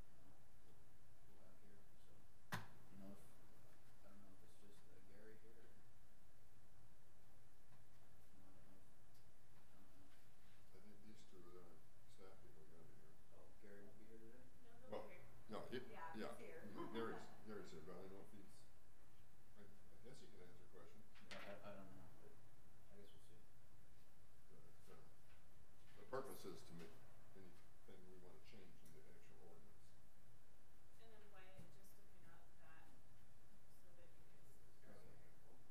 uh, Oh, uh, purpose is to make anything we want to change in the actual ordinance. And then why it just looking up that so that you guys. Okay, all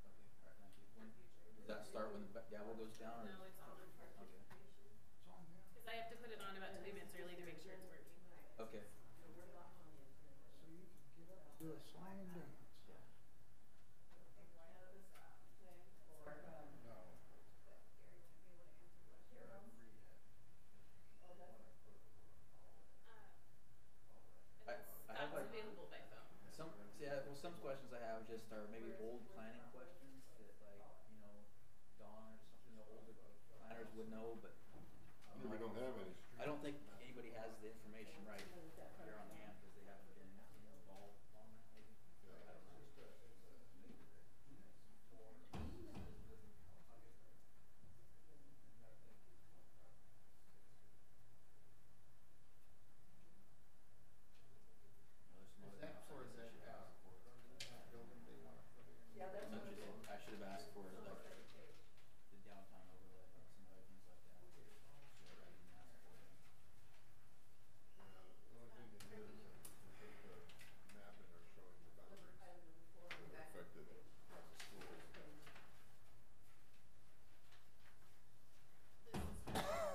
right, for thank you. future. Does that start when the ba- gavel goes down or? No, it's on the park. Okay. Cause I have to put it on about twenty minutes early to make sure it's working. Okay. Do a song and dance. No. Uh, I- And it's, I that's have, like, available by phone. Some, see, I, well, some questions I have just are maybe old planning questions that like, you know, Dawn or some, you know, older planners would know, but. you know, We don't have any. I don't think anybody has the information right here on hand because they haven't been involved long enough, maybe. I don't know. Well, there's some Is other that things I for the, guess I should uh, ask for. building they wanna put in? Yeah, that's So what it just- is. I should have asked for like the downtown overlay and some other things like that. Should I even ask for them? The only thing they did is they took the map and are showing the boundaries that are affected by the schools.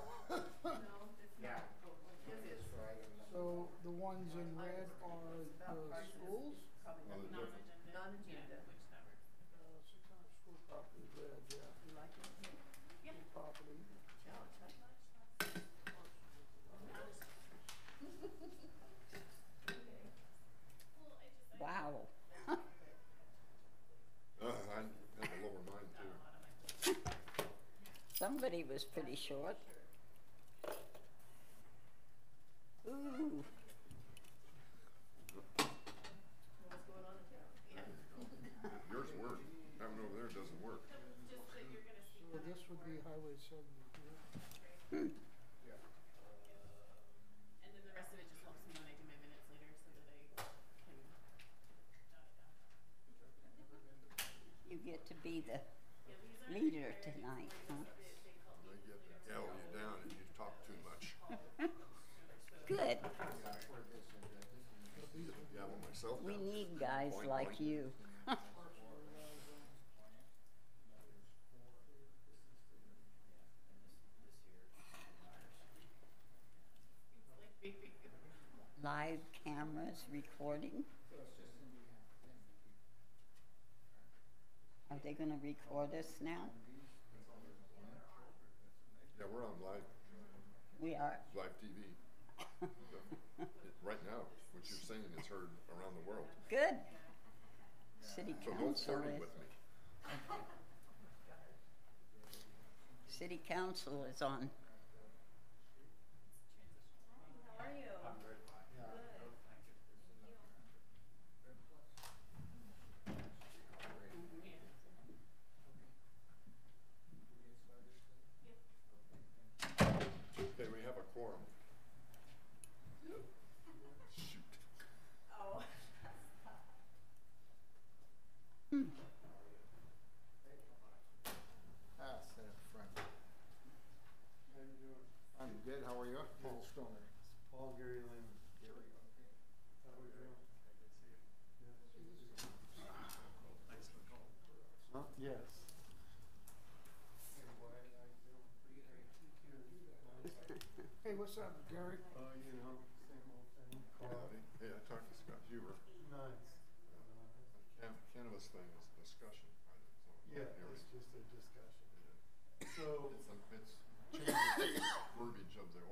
Yeah. This is. So the ones in red are the schools. Well, Coming the- up. Non-agenda. Non-agenda. Yeah, which that works. Uh, six hundred school property is red, yeah. You like it? Yeah. Property. Challenge, huh? Well, I just, I Wow. Uh, I have a lower mind got a too. lot on my plate. Somebody was pretty short. Ooh, Know What's going on in town? Yours work, that one over there doesn't work. Just that you're gonna see. So this would be Highway seventy here. And then the rest of it just helps me when I do my minutes later so that I can jot it down. you get to be the, Yeah, these are Leader the tonight, priorities huh? that They they help me later. They get to L you down if you talk too much. good. Yeah, I poured this in, but this is- Yeah, well, myself. We down. need guys Boing, like boing. you. And this, this here is the minors. Live cameras recording. Are they gonna record us now? Yeah, we're on live, We are. live TV. It- Right now, what you're saying is heard around the world. Good. City So no council flirting is, with me. city council is on. How are you? I'm very fine. Yeah, no, thank you. There's enough. Yeah. Okay, we have a quorum. Shoot. Oh. uh, Hmm. Ah, sit up front. I'm good, how are you? Paul Stoner. Paul Gary Lehman. Gary, okay. How are you? Huh? Yes. Hey, what's up, Gary? Oh, you know, same old thing. Hey, I talked to Scott Huber. Nice. Cam- Cannabis thing is a discussion item, so. it's Yeah, not hearing. it's just a discussion. Yeah. So. It's, a- it's changing verbiage of the